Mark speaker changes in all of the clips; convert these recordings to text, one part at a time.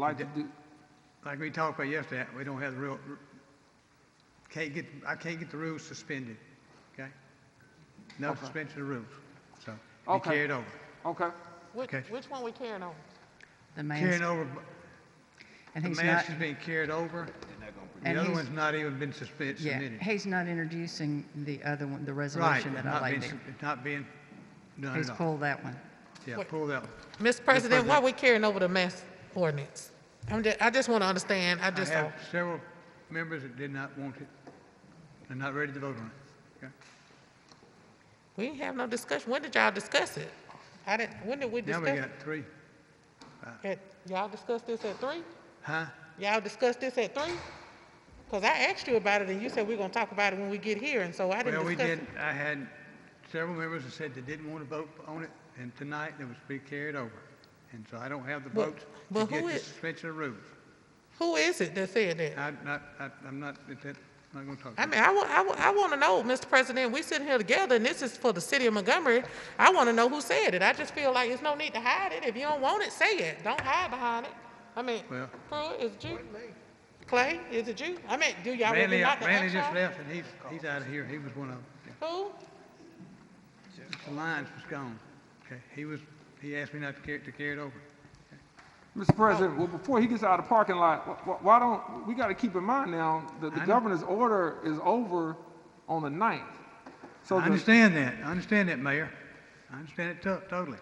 Speaker 1: like to do,
Speaker 2: Like we talked about yesterday, we don't have the real, can't get, I can't get the rules suspended, okay? No suspension of rules, so be
Speaker 1: Okay.
Speaker 2: carried over.
Speaker 1: okay,
Speaker 3: Which,
Speaker 2: Okay.
Speaker 3: which one we carrying on?
Speaker 4: The mask,
Speaker 2: Carrying over,
Speaker 4: and
Speaker 2: the
Speaker 4: he's not,
Speaker 2: mask is being carried over.
Speaker 4: And
Speaker 2: The other
Speaker 4: he's-
Speaker 2: one's not even been suspended,
Speaker 4: yeah,
Speaker 2: submitted.
Speaker 4: he's not introducing the other one, the
Speaker 2: Right,
Speaker 4: resolution that I
Speaker 2: not being,
Speaker 4: laid
Speaker 2: su-
Speaker 4: there.
Speaker 2: it's not being done
Speaker 4: He's
Speaker 2: at all.
Speaker 4: pulled that one.
Speaker 2: Yeah, pull that one.
Speaker 3: Mr. President, why we carrying over the mask ordinance? I'm just, I just want to understand, I
Speaker 2: I
Speaker 3: just
Speaker 2: have
Speaker 3: don't.
Speaker 2: several members that did not want it, and not ready to vote on it, okay?
Speaker 3: we didn't have no discussion. When did y'all discuss it? I didn't, when did we
Speaker 2: Now we
Speaker 3: discuss?
Speaker 2: got three,
Speaker 3: it? Y'all discussed this at three?
Speaker 2: huh?
Speaker 3: Y'all discussed this at three? Because I asked you about it and you said we're going to talk about it when we get here, and so I
Speaker 2: Well,
Speaker 3: didn't
Speaker 2: we
Speaker 3: discuss
Speaker 2: did,
Speaker 3: it.
Speaker 2: I had several members that said they didn't want to vote on it, and tonight it was being carried over. And so I don't have the
Speaker 3: But-
Speaker 2: votes to
Speaker 3: but
Speaker 2: get
Speaker 3: who
Speaker 2: the
Speaker 3: is-
Speaker 2: suspension of rules.
Speaker 3: Who is it that said that?
Speaker 2: I'm not, I- I'm not, that- that- I'm not going to talk.
Speaker 3: I
Speaker 2: about it.
Speaker 3: mean, I, wa- I, wa- I want to know, Mr. President, we sitting here together and this is for the city of Montgomery. I want to know who said it. I just feel like there's no need to hide it. If you don't want it, say it. Don't hide behind it. I mean,
Speaker 2: Well-
Speaker 3: Pruitt, is it you? Clay, is it you? I mean, do y'all really
Speaker 2: Randy,
Speaker 3: not the
Speaker 2: Randy just
Speaker 3: extra?
Speaker 2: left, and he's, he's out of here. He was one of them.
Speaker 3: Who?
Speaker 2: The Lyons was gone. Okay, he was, he asked me not to carry, to carry it over.
Speaker 1: Mr. President, well, before he gets out of the parking lot, wh- wh- why don't, we gotta keep in mind now that the
Speaker 2: I know.
Speaker 1: governor's order is over on the ninth. So
Speaker 2: I
Speaker 1: the-
Speaker 2: understand that. I understand that, Mayor. I understand it to- totally.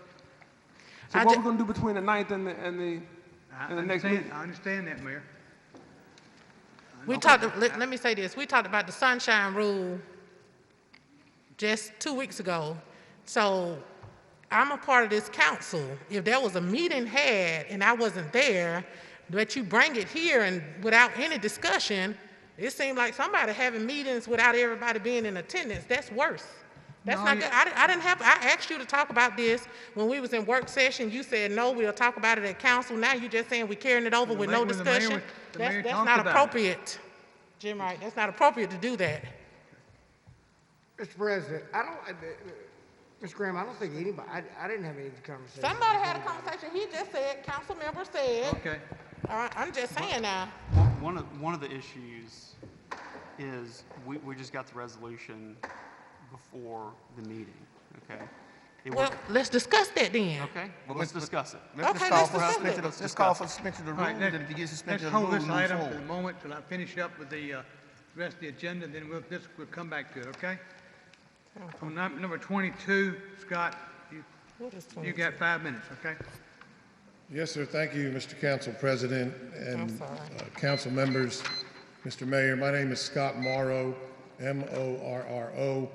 Speaker 1: So
Speaker 3: I
Speaker 1: what
Speaker 3: ju-
Speaker 1: we're gonna do between the ninth and the, and the,
Speaker 2: I
Speaker 1: and the next meeting?
Speaker 2: understand, I understand that, Mayor.
Speaker 3: We talked, let, let me say this, we talked about the sunshine rule just two weeks ago. So I'm a part of this council. If there was a meeting had and I wasn't there, but you bring it here and without any discussion, it seemed like somebody having meetings without everybody being in attendance, that's worse. That's
Speaker 2: No,
Speaker 3: not
Speaker 2: you-
Speaker 3: good. I, di- I didn't have, I asked you to talk about this when we was in work session. You said, no, we'll talk about it at council. Now you're just saying we carrying it over
Speaker 2: Well,
Speaker 3: with no
Speaker 2: like when the mayor
Speaker 3: discussion.
Speaker 2: was- the mayor
Speaker 3: That's, that's
Speaker 2: talked
Speaker 3: not
Speaker 2: about it.
Speaker 3: appropriate. Jim Wright, that's not appropriate to do that.
Speaker 5: Mr. President, I don't, uh, uh, Ms. Graham, I don't think anybody, I, I didn't have any conversation.
Speaker 3: Somebody had a conversation, he just said, council member said,
Speaker 2: Okay.
Speaker 3: all right, I'm just saying now.
Speaker 6: One- One of, one of the issues is, we, we just got the resolution before the meeting, okay? It was-
Speaker 3: Well, let's discuss that then.
Speaker 6: Okay, well, let's discuss it.
Speaker 3: Okay,
Speaker 7: just call
Speaker 3: let's
Speaker 7: for
Speaker 3: discuss
Speaker 7: suspension
Speaker 3: it.
Speaker 7: of- Let's call for suspension of the
Speaker 2: All right,
Speaker 7: rules,
Speaker 2: let-
Speaker 7: and if you get
Speaker 2: let's
Speaker 7: suspension of the
Speaker 2: hold
Speaker 7: rules,
Speaker 2: this
Speaker 7: we move
Speaker 2: item for the
Speaker 7: forward.
Speaker 2: moment till I finish up with the uh, rest of the agenda, then we'll, this, we'll come back to it, okay? On num- number 22, Scott, you,
Speaker 3: What is
Speaker 2: you got five minutes, okay?
Speaker 8: Yes, sir. Thank you, Mr. Council President and
Speaker 3: sorry.
Speaker 8: uh, council members. Mr. Mayor, my name is Scott Morrow, M-O-R-R-O.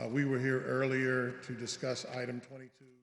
Speaker 8: Uh, We were here earlier to discuss item 22.